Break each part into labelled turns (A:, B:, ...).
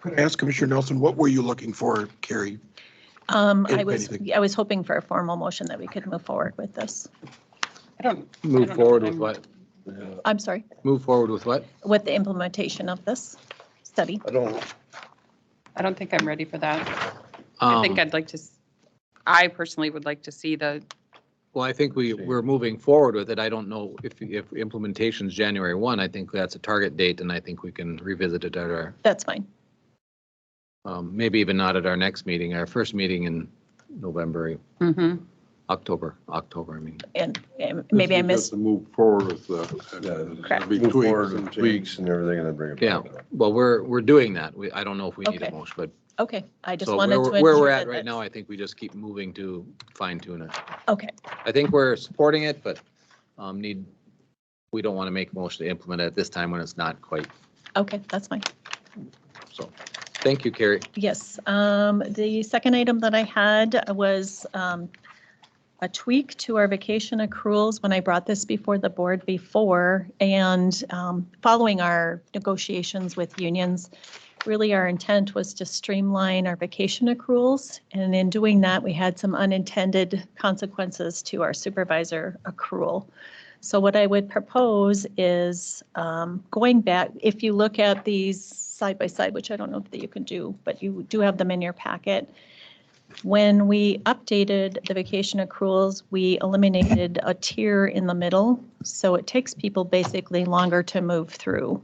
A: Could I ask Commissioner Nelson, what were you looking for, Carrie?
B: Um, I
A: If
B: was,
A: anything.
B: I was hoping for a formal motion that we could move forward with this.
C: I don't, don't
D: Move
C: know,
D: forward with
C: I'm-
D: what?
B: I'm sorry,
D: Move forward with what?
B: with the implementation of this study.
E: I don't,
C: I don't think I'm ready for that. I think
D: Um,
C: I'd like to, s- I personally would like to see the,
D: Well, I think we, we're moving forward with it. I don't know if, if implementation's January 1, I think that's a target date, and I think we can revisit it at our,
B: That's fine.
D: um, maybe even not at our next meeting, our first meeting in November,
C: Mhm.
D: October, October, I mean.
B: And and maybe I
F: Just
B: missed,
F: To move forward with the,
E: yeah,
B: Correct.
F: and be
E: move
F: tweaks
E: forward with
F: and
E: tweaks
F: changes.
E: and everything and then bring it back.
D: Yeah. Well, we're, we're doing that. We, I don't know if we need a
B: Okay.
D: motion, but
B: okay, I just
D: so
B: wanted
D: where,
B: to.
D: we're- where
B: ensure
D: we're
B: that
D: at right now,
B: that's-
D: I think we just keep moving to fine tune it.
B: Okay,
D: I think we're supporting it, but um, need, we don't want to make a motion to implement it at this time when it's not quite.
B: okay, that's fine.
D: So, thank you, Carrie.
B: Yes, um, the second item that I had was, um, a tweak to our vacation accruals when I brought this before the board before. And, um, following our negotiations with unions, really our intent was to streamline our vacation accruals. And in doing that, we had some unintended consequences to our supervisor accrual. So what I would propose is um, going back, if you look at these side by side, which I don't know that you can do, but you do have them in your packet. When we updated the vacation accruals, we eliminated a tier in the middle. So it takes people basically longer to move through.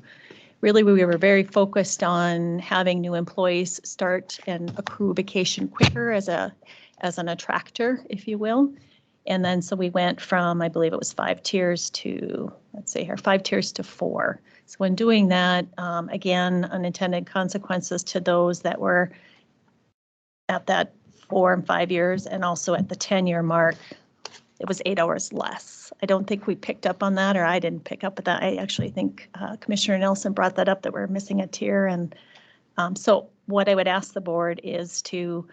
B: Really, we were very focused on having new employees start and accrue vacation quicker as a, as an attractor, if you will. And then, so we went from, I believe it was five tiers to, let's see here, five tiers to four. So in doing that, um, again, unintended consequences to those that were at that four and five years and also at the 10-year mark, it was eight hours less. I don't think we picked up on that, or I didn't pick up on that. I actually think uh, Commissioner Nelson brought that up, that we're missing a tier. And um, so what I would ask the board is to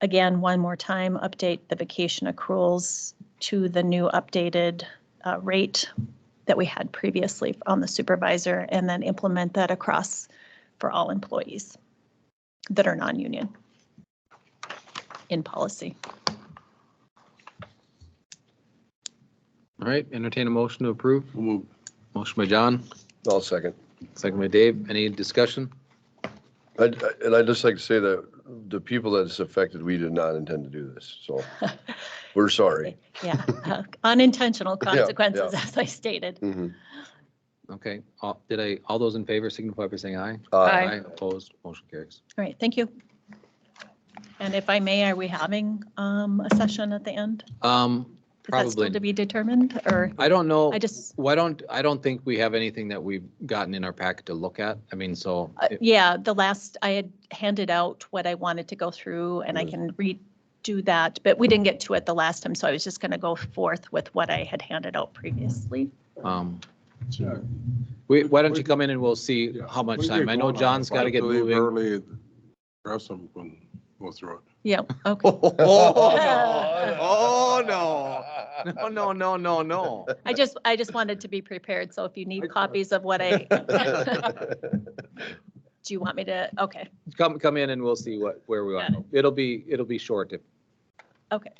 B: again, one more time, update the vacation accruals to the new updated uh, rate that we had previously on the supervisor, and then implement that across for all employees that are non-union in policy.
D: All right, entertain a motion to approve.
F: We'll move
D: Motion by John,
E: I'll second.
D: second by Dave. Any discussion?
E: I- I- And I'd just like to say that the people that it's affected, we did not intend to do this, so we're sorry.
B: Yeah, uh, unintentional
E: Yeah, yeah.
B: consequences, as I stated.
E: Mhm.
D: Okay, all- did I, all those in favor signify by saying aye?
E: Uh,
C: Aye.
D: Opposed, motion carries.
B: All right, thank you. And if I may, are we having um, a session at the end?
D: Um,
B: Is that still to
D: probably,
B: be determined, or
D: I don't know.
B: I just,
D: Why don't, I don't think we have anything that we've gotten in our packet to look at. I mean, so.
B: Uh,
D: it-
B: Yeah, the last, I had handed out what I wanted to go through and I can redo that, but we didn't get to it the last time, so I was just going to go forth with what I had handed out previously.
D: um,
F: Yeah.
D: We, why don't you come in and we'll see
F: Yeah.
D: how much
F: We
D: time?
F: get
D: I know
F: going on.
D: John's
F: If I
D: got to get
F: leave
D: moving.
F: Early, rest of them can go through it.
B: Yeah, okay.
D: Oh, no. Oh, No, no, no, no, no.
B: I just, I just wanted to be prepared, so if you need copies of what I, do you want me to, okay,
D: Come, come in and we'll see what, where we are.
B: Got
D: It'll be, it'll be short. if-
B: Okay.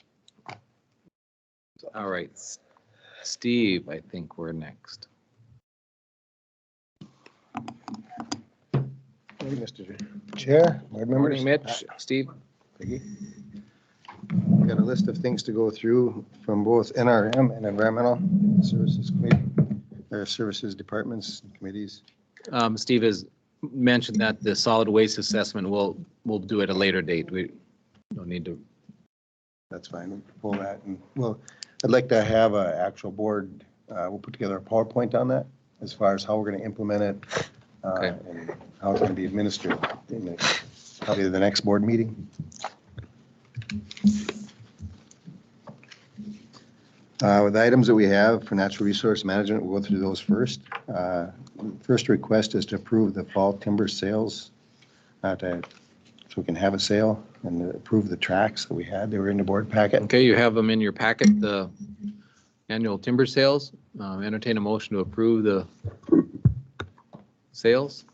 D: All right. S- Steve, I think we're next.
G: Morning, Mr. Chair, board members. Uh,
D: Morning, Mitch. Steve?
G: Peggy. Got a list of things to go through from both NRM and Environmental Services Committee, or Services Departments and Committees.
D: Um, Steve has mentioned that the solid waste assessment, we'll, we'll do at a later date. We don't need to,
G: That's fine, we can pull that and, well, I'd like to have an actual board, uh, we'll put together a PowerPoint on that as far as how we're going to implement it. uh,
D: Okay.
G: And how it's going to be administered in the, probably the next board meeting. Uh, With the items that we have for natural resource management, we'll go through those first. Uh, First request is to approve the fall timber sales, uh, to- so we can have a sale and approve the tracks that we had. They were in the board packet.
D: okay, you have them in your packet, the annual Um, timber sales. Uh, Entertain a motion to approve the sales.